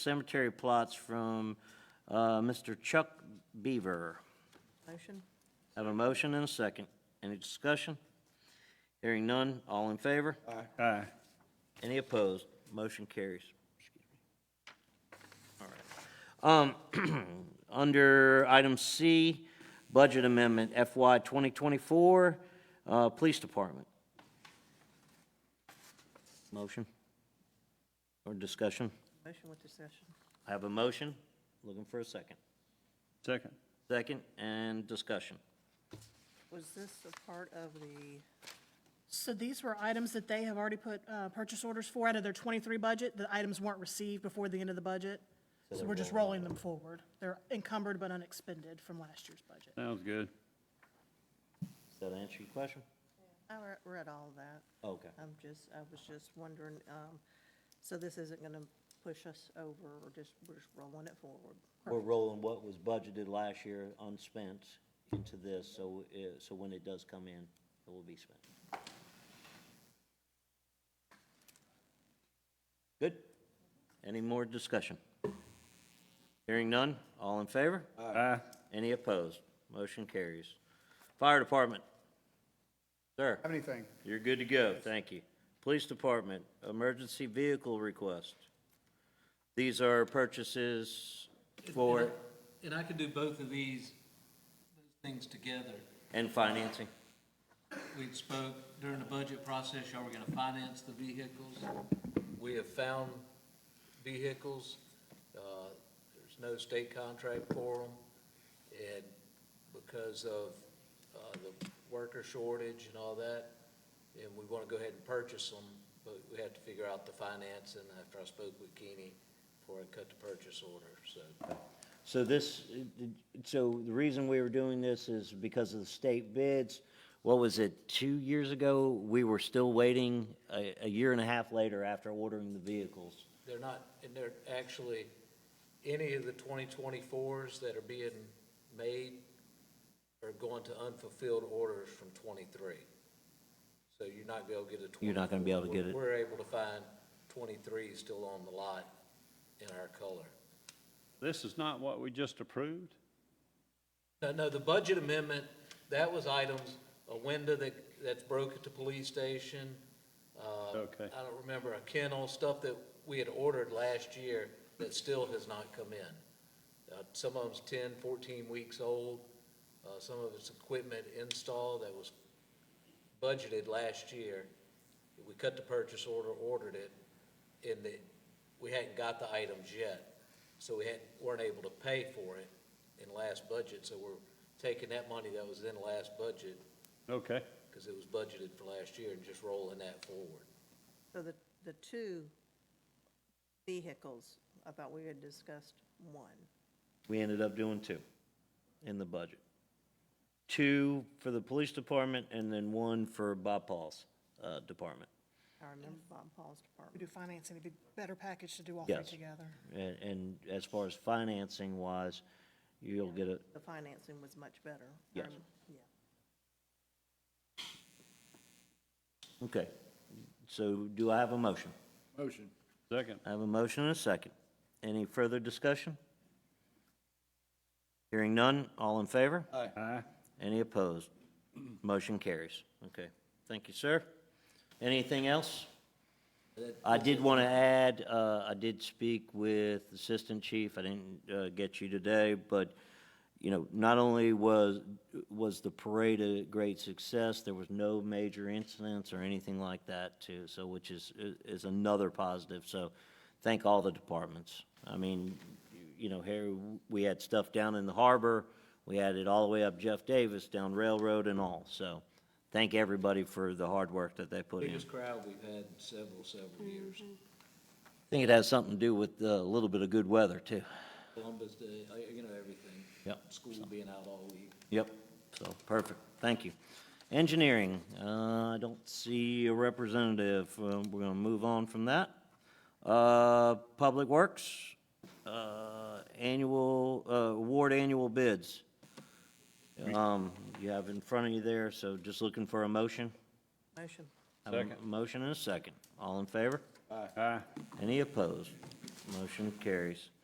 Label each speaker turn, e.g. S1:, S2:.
S1: cemetery plots from uh, Mr. Chuck Beaver.
S2: Motion?
S1: Have a motion and a second. Any discussion? Hearing none, all in favor?
S3: Aye.
S1: Any opposed? Motion carries. All right. Um, Under item C, budget amendment FY 2024, uh, Police Department. Motion or discussion?
S2: Motion with discussion.
S1: I have a motion, looking for a second.
S3: Second.
S1: Second and discussion.
S2: Was this a part of the,
S4: So these were items that they have already put uh, purchase orders for out of their 23 budget. The items weren't received before the end of the budget, so we're just rolling them forward. They're encumbered but unexpended from last year's budget.
S3: Sounds good.
S1: Does that answer your question?
S2: I re- read all of that.
S1: Okay.
S2: I'm just, I was just wondering, um, so this isn't going to push us over, or just, we're just rolling it forward?
S1: We're rolling what was budgeted last year unspent into this, so, uh, so when it does come in, it will be spent. Good? Any more discussion? Hearing none, all in favor?
S3: Aye.
S1: Any opposed? Motion carries. Fire Department. Sir,
S5: Have anything?
S1: you're good to go, thank you. Police Department, emergency vehicle request. These are purchases for.
S6: And I could do both of these things together.
S1: And financing.
S6: We spoke during the budget process, are we gonna finance the vehicles? We have found vehicles, uh, there's no state contract for them. And because of, uh, the worker shortage and all that, and we wanna go ahead and purchase them, but we have to figure out the finance, and after I spoke with Keeney, before I cut the purchase order, so.
S1: So this, so the reason we were doing this is because of the state bids. What was it, two years ago? We were still waiting a, a year and a half later after ordering the vehicles.
S6: They're not, and they're actually, any of the twenty twenty-fours that are being made are going to unfulfilled orders from twenty-three. So you're not gonna get a twenty.
S1: You're not gonna be able to get it.
S6: We're able to find twenty-three still on the lot in our color.
S3: This is not what we just approved?
S6: No, no, the budget amendment, that was items, a window that, that's broke at the police station. uh,
S3: Okay.
S6: I don't remember, a kennel, stuff that we had ordered last year that still has not come in. Uh, Some of them's 10, 14 weeks old, uh, some of it's equipment install that was budgeted last year. We cut the purchase order, ordered it, and the, we hadn't got the items yet, so we hadn't, weren't able to pay for it in last budget, so we're taking that money that was in last budget,
S3: Okay.
S6: because it was budgeted for last year, and just rolling that forward.
S2: So the, the two vehicles, I thought we had discussed one.
S1: We ended up doing two in the budget. Two for the police department and then one for Bob Paul's, uh, department.
S2: I remember Bob Paul's department.
S4: We do financing, it'd be a better package to do all three
S1: Yes.
S4: together.
S1: And, and as far as financing wise, you'll get a,
S2: The financing was much better. I
S1: Yes.
S2: rem- Yeah.
S1: okay. So do I have a motion?
S5: Motion.
S3: Second.
S1: I have a motion and a second. Any further discussion? Hearing none, all in favor?
S3: Aye.
S1: Any opposed? Motion carries. Okay, thank you, sir. Anything else? I did want to add, uh, I did speak with Assistant Chief, I didn't uh, get you today, but, you know, not only was, was the parade a great success, there was no major incidents or anything like that too, so, which is, is another positive, so thank all the departments. I mean, you know, here, we had stuff down in the harbor, we had it all the way up Jeff Davis, down Railroad and all, so thank everybody for the hard work that they put in.
S6: Biggest crowd we've had in several, several years.
S1: I think it has something to do with uh, a little bit of good weather, too.
S6: Columbus Day, uh, you know, everything.
S1: Yep.
S6: School being out all week.
S1: Yep. So, perfect, thank you. Engineering, uh, I don't see a representative, Uh, we're gonna move on from that. Uh, Public Works, uh, annual, uh, award annual bids. Um, You have in front of you there, so just looking for a motion.
S2: Motion.
S1: Have a
S3: Second.
S1: Motion and a second, all in favor?
S3: Aye.
S1: Any opposed? Motion carries.